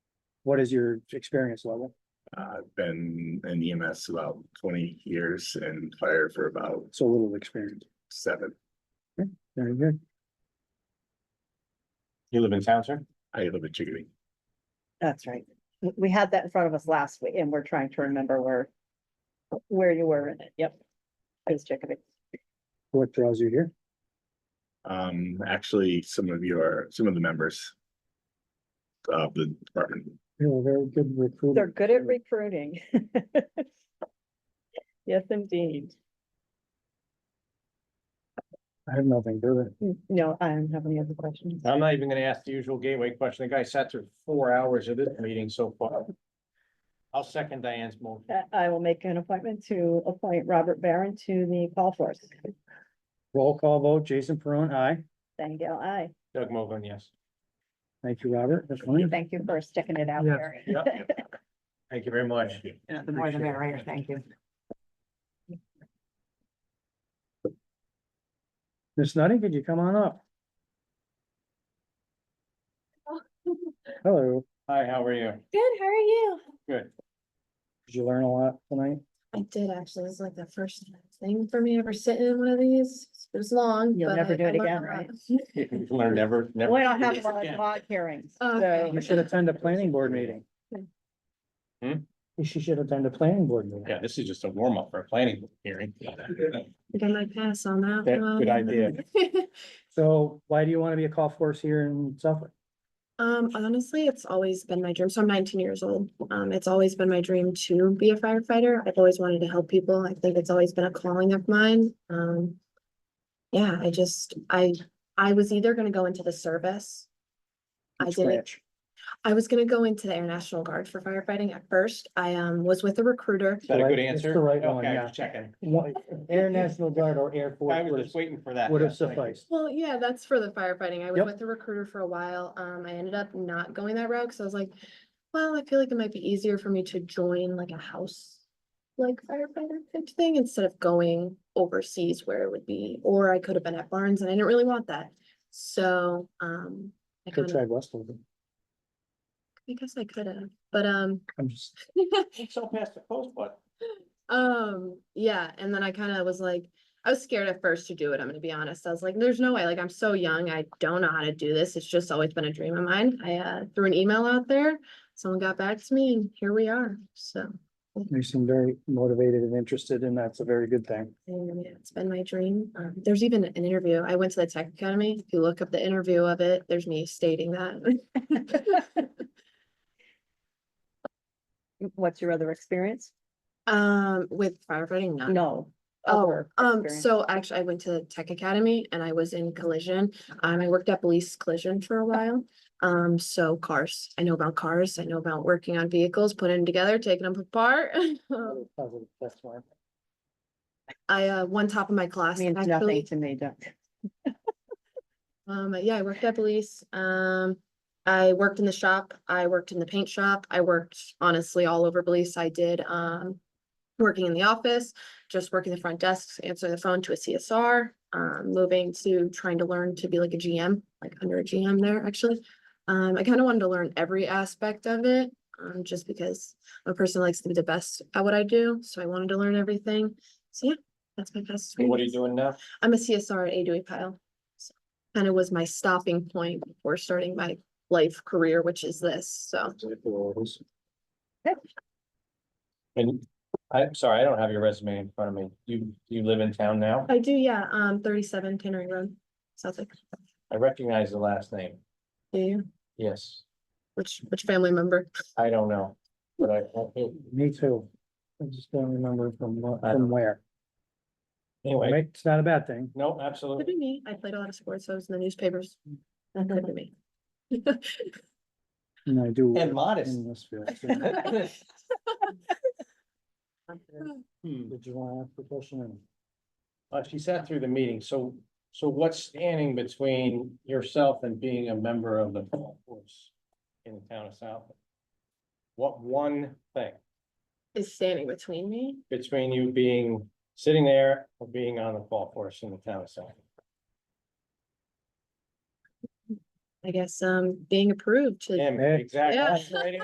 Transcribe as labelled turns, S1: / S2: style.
S1: What is your experience level?
S2: Uh, I've been in EMS about twenty years and fire for about
S1: So little experience.
S2: seven.
S1: Very good.
S3: You live in town, sir?
S2: I live in Chickadee.
S4: That's right. W- We had that in front of us last week and we're trying to remember where, where you were in it. Yep. I was checking it.
S1: What draws you here?
S2: Um, actually, some of your, some of the members of the department.
S1: You're a very good recruiter.
S4: They're good at recruiting. Yes, indeed.
S1: I have nothing further.
S4: N- No, I don't have any other questions.
S3: I'm not even gonna ask the usual gateway question. The guy sat through four hours of this meeting so far. I'll second Diane's motion.
S4: I- I will make an appointment to appoint Robert Barron to the call force.
S1: Roll call vote, Jason Peron, aye.
S4: Thank you. I,
S3: Doug Mogul, yes.
S1: Thank you, Robert. That's fine.
S4: thank you for sticking it out
S1: Yeah,
S4: there.
S3: yeah, Thank you very much.
S4: The
S1: more the merrier,
S4: thank you.
S1: Miss Nutting, could you come on up? Hello.
S3: Hi, how are you?
S5: Good, how are you?
S3: Good.
S1: Did you learn a lot tonight?
S5: I did actually, it's like the first thing for me ever sitting in one of these. It was long.
S4: You'll
S5: but
S4: never
S5: I-
S4: do
S5: I
S4: it
S5: learned a
S4: again,
S5: lot.
S4: right?
S3: You learn never, never.
S4: We don't
S3: do
S4: have
S3: this
S4: a lot of
S3: again.
S4: log hearings, so
S5: Okay.
S1: You should attend a planning board meeting.
S3: Hmm?
S1: She should attend a planning board meeting.
S3: Yeah, this is just a warm up for a planning hearing.
S5: I think I might pass on that
S3: That-
S5: one.
S1: Um,
S3: good idea.
S1: So why do you want to be a call force here in Suffolk?
S5: Um, honestly, it's always been my dream. So I'm nineteen years old. Um, it's always been my dream to be a firefighter. I've always wanted to help people. I think it's always been a calling of mine. Um. Yeah, I just, I, I was either gonna go into the service. I
S1: Which
S5: didn't
S1: branch?
S5: I was gonna go into the Air National Guard for firefighting at first. I um was with a recruiter.
S3: Is that a
S1: Right,
S3: good
S1: it's the
S3: answer?
S1: right one,
S3: Okay, I
S1: yeah.
S3: was Checking.
S1: What- Air National Guard or Air Force
S3: I was
S1: would
S3: just waiting for that.
S1: have- would have
S3: Yes, thank you.
S1: sufficed.
S5: Well, yeah, that's for the firefighting. I was
S1: Yep.
S5: with a recruiter for a while. Um, I ended up not going that route because I was like, well, I feel like it might be easier for me to join like a house like firefighter type thing instead of going overseas where it would be, or I could have been at Barnes and I didn't really want that. So, um, I
S1: Go
S5: kind
S1: try
S5: of,
S1: Westover.
S5: I guess I could have, but um,
S1: I'm just,
S3: It's so past the post, but.
S5: Um, yeah, and then I kind of was like, I was scared at first to do it. I'm gonna be honest. I was like, there's no way, like, I'm so young. I don't know how to do this. It's just always been a dream of mine. I uh, threw an email out there. Someone got back to me and here we are. So
S1: you seem very motivated and interested and that's a very good thing.
S5: and yeah, it's been my dream. Um, there's even an interview. I went to the tech academy. If you look up the interview of it, there's me stating that.
S4: what's your other experience?
S5: Um, with firefighting, no.
S4: No.
S5: Oh,
S4: other
S5: Um,
S4: experience.
S5: so actually, I went to Tech Academy and I was in collision. Um, I worked at police collision for a while. Um, so cars, I know about cars, I know about working on vehicles, putting them together, taking them apart. Um,
S1: Positive, That's why.
S5: I, uh, one top of my class.
S4: Means
S5: actually.
S4: nothing to me, Doug.
S5: Um, yeah, I worked at police. Um, I worked in the shop. I worked in the paint shop. I worked honestly all over police. I did, um, working in the office, just working the front desks, answering the phone to a CSR, um, moving to trying to learn to be like a GM, like under a GM there, actually. Um, I kind of wanted to learn every aspect of it, um, just because I'm a person that likes to be the best at what I do. So I wanted to learn everything. So yeah, that's my past.
S3: What are you
S5: experience.
S3: doing now?
S5: I'm a E CSR at Adewey Pile. Kind of was my stopping point before starting my life career, which is this, so.
S3: And I'm sorry, I don't have your resume in front of me. You, you live in town now?
S5: I do, yeah, um, thirty-seven Tannery Road, Suffolk.
S3: I recognize the last name.
S5: Do you?
S3: Yes,
S5: Which, which family member?
S3: I don't know, but I, I think-
S1: Me too. I just don't remember from, wh-
S3: I
S1: from
S3: don't-
S1: where.
S3: anyway,
S1: Right? It's not a bad thing.
S3: no,
S5: Could
S3: absolutely.
S5: be me. I played a lot of sports, so I was in the newspapers. Could be me.
S1: And I do.
S3: And
S1: work
S3: modest.
S1: In this field. so- Did
S3: Hmm.
S1: you want to ask a question?
S3: Uh, she sat through the meeting, so, so what's standing between yourself and being a member of the golf course in the town of South? What one thing
S5: Is standing between me.
S3: between you being, sitting there or being on the golf course in the town of South?
S5: I um, guess, um, being approved to
S3: Damn,
S1: Yeah.
S3: exactly.
S5: Yeah.
S3: That's right.